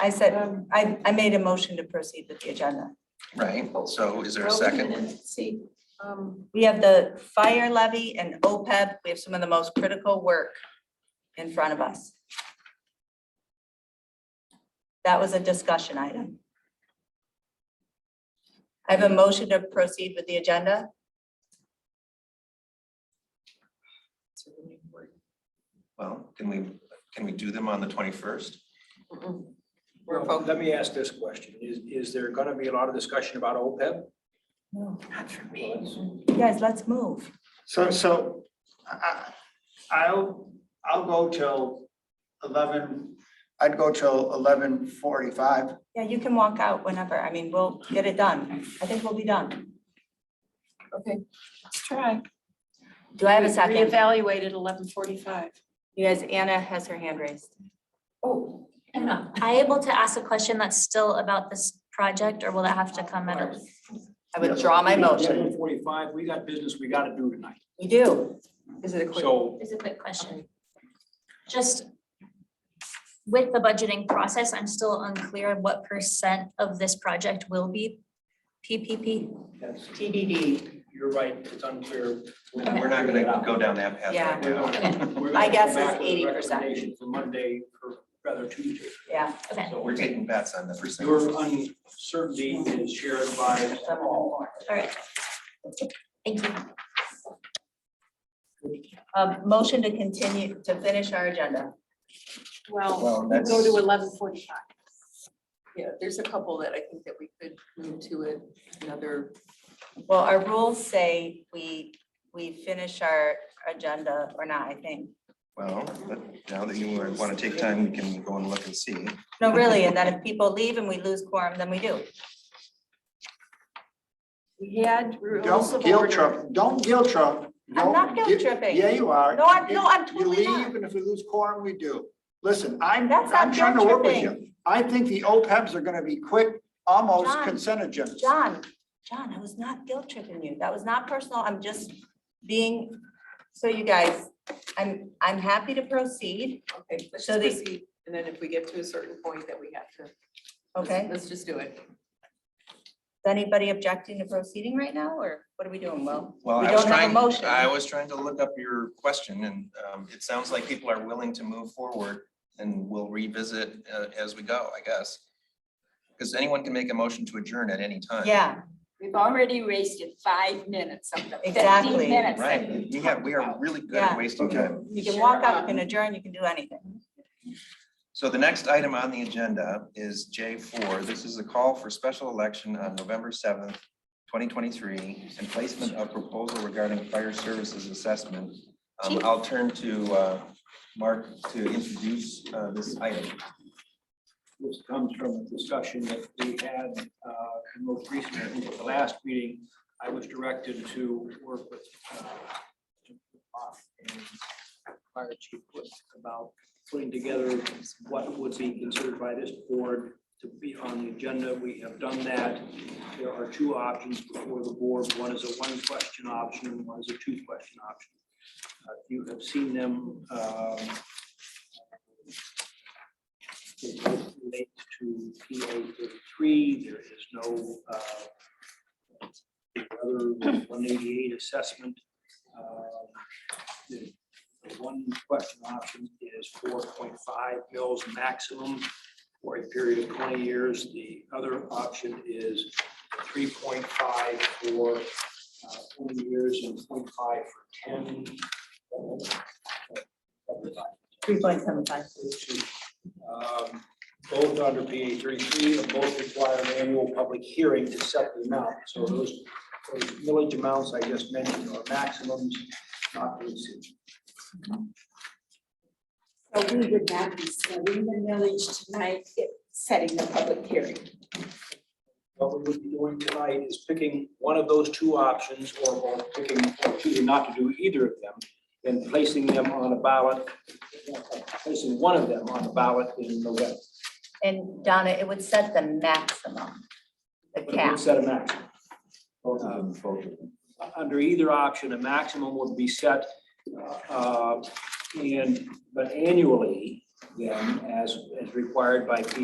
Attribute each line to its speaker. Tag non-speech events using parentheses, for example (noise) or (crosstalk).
Speaker 1: I said,
Speaker 2: Um,
Speaker 1: I, I made a motion to proceed with the agenda.
Speaker 3: right? So is there a
Speaker 2: well, wait
Speaker 3: second?
Speaker 2: minute, See, um,
Speaker 1: We have the fire levy and OPEB. We have some of the most critical work in front of us. That was a discussion item. I have a motion to proceed with the agenda.
Speaker 3: Well, can we, can we do them on the twenty-first?
Speaker 1: We're
Speaker 4: Well, Let me ask this question. Is, is there gonna be a lot of discussion about E OPEB?
Speaker 1: Not for me. Guys, let's move.
Speaker 5: So, so I, I- I'll, I'll go till eleven, I'd go till eleven forty-five.
Speaker 1: Yeah, you can walk out whenever. I mean, we'll get it done. I think we'll be done.
Speaker 2: okay, let's try.
Speaker 1: Do I have a second?
Speaker 2: Reevaluate at eleven forty-five.
Speaker 1: You guys, Anna has her hand raised.
Speaker 2: Oh, Anna.
Speaker 6: I able to ask a question that's still about this project, or will that have to come at a?
Speaker 1: I withdraw my motion.
Speaker 4: Eleven forty-five, we got business we gotta do tonight.
Speaker 1: We do. Is it a
Speaker 4: So
Speaker 6: It's a quick question. Just with the budgeting process, I'm still unclear what percent of this project will be PPP.
Speaker 4: that's,
Speaker 1: TBD.
Speaker 4: you're right, it's unclear.
Speaker 3: We're not gonna go down that path right
Speaker 4: (laughs) We're
Speaker 3: now.
Speaker 4: gonna-
Speaker 1: (laughs)
Speaker 4: we're gonna
Speaker 1: My
Speaker 4: come
Speaker 1: guess is
Speaker 4: back with a
Speaker 1: 80%.
Speaker 4: recommendation For Monday, or rather Tuesday.
Speaker 1: Yeah,
Speaker 6: Okay,
Speaker 3: So we're taking bets on the percentage.
Speaker 4: Your uncertainty is shared by all.
Speaker 6: all right. Thank you.
Speaker 1: um, motion to continue, to finish our agenda.
Speaker 3: Well,
Speaker 2: Well, we'll
Speaker 3: that's-
Speaker 2: go to eleven forty-five.
Speaker 7: Yeah, there's a couple that I think that we could move to a- another,
Speaker 1: Well, our rules say we, we finish our agenda or not, I think.
Speaker 3: Well, but now that you want to take time, we can go and look and see.
Speaker 1: No, really, and then if people leave and we lose quorum, then we do.
Speaker 2: We had rules
Speaker 5: Don't
Speaker 2: of
Speaker 5: guilt
Speaker 2: order.
Speaker 5: trip, don't guilt trip.
Speaker 1: I'm not
Speaker 5: Don't
Speaker 1: guilt
Speaker 5: gui-
Speaker 1: tripping.
Speaker 5: Yeah, you are.
Speaker 1: No, I'm- no,
Speaker 5: You-
Speaker 1: I'm totally
Speaker 5: You
Speaker 1: not.
Speaker 5: leave, and if we lose quorum, we do. Listen, I'm,
Speaker 1: That's not
Speaker 5: I'm trying to work with
Speaker 1: guilt
Speaker 5: you. I think the OPEBs are gonna be quick, almost
Speaker 1: John,
Speaker 5: consent agendas.
Speaker 1: John, John, I was not guilt tripping you. That was not personal. I'm just being, so you guys, I'm, I'm happy to proceed,
Speaker 7: okay, let's
Speaker 1: So
Speaker 7: just
Speaker 1: the-
Speaker 7: proceed. And then if we get to a certain point that we have to, let's-
Speaker 1: okay?
Speaker 7: let's just do it.
Speaker 1: Is anybody objecting to proceeding right now, or what are we doing, Will?
Speaker 3: Well,
Speaker 1: We
Speaker 3: I was
Speaker 1: don't have a
Speaker 3: trying,
Speaker 1: motion.
Speaker 3: I was trying to look up your question and um, it sounds like people are willing to move forward and we'll revisit uh, as we go, I guess. Because anyone can make a motion to adjourn at any
Speaker 4: Uh,
Speaker 3: time.
Speaker 1: Yeah,
Speaker 8: We've already raised it five minutes of the
Speaker 1: Exactly.
Speaker 8: fifteen minutes. that
Speaker 3: Right,
Speaker 8: we
Speaker 3: we have, we are
Speaker 8: talked
Speaker 3: really good
Speaker 1: Yeah.
Speaker 3: at wasting
Speaker 5: Okay.
Speaker 3: time.
Speaker 1: you can walk
Speaker 4: Um,
Speaker 1: out, you can adjourn, you can do anything.
Speaker 3: So the next item on the agenda is J four. This is a call for special election on November seventh, twenty twenty-three, and placement of proposal regarding fire services assessment. Um, I'll turn to, uh, Mark to introduce, uh, this item.
Speaker 4: This comes from a discussion that we had uh, most recently, I think at the last meeting. I was directed to work with uh, and Fire Chief Wood about putting together what would be considered by this board to be on the agenda. We have done that. There are two options before the board. One is a one-question option and one is a two-question option. Uh, You have seen them um, they both relate to PA thirty-three, there is no uh, other one eighty-eight assessment. Um, The the one question option is four point five mils maximum for a period of twenty years. The other option is three point five for uh, twenty years and 0.5 for ten. Uh,
Speaker 1: Three point seven five.
Speaker 4: Um, Both under PA thirty-three, and both require an annual public hearing to set the amount. So those those millage amounts I just mentioned are maximums, not to exceed.
Speaker 8: So we would not be setting the millage tonight, it- setting the public hearing.
Speaker 4: What we would be doing tonight is picking one of those two options or or picking, or choosing not to do either of them and placing them on a ballot, placing one of them on a ballot in November.
Speaker 1: And Donna, it would set the maximum, the
Speaker 4: But it
Speaker 1: cap.
Speaker 4: would set a maximum. Um, Under either option, a maximum would be set, uh, and, but annually, then, as, as required by P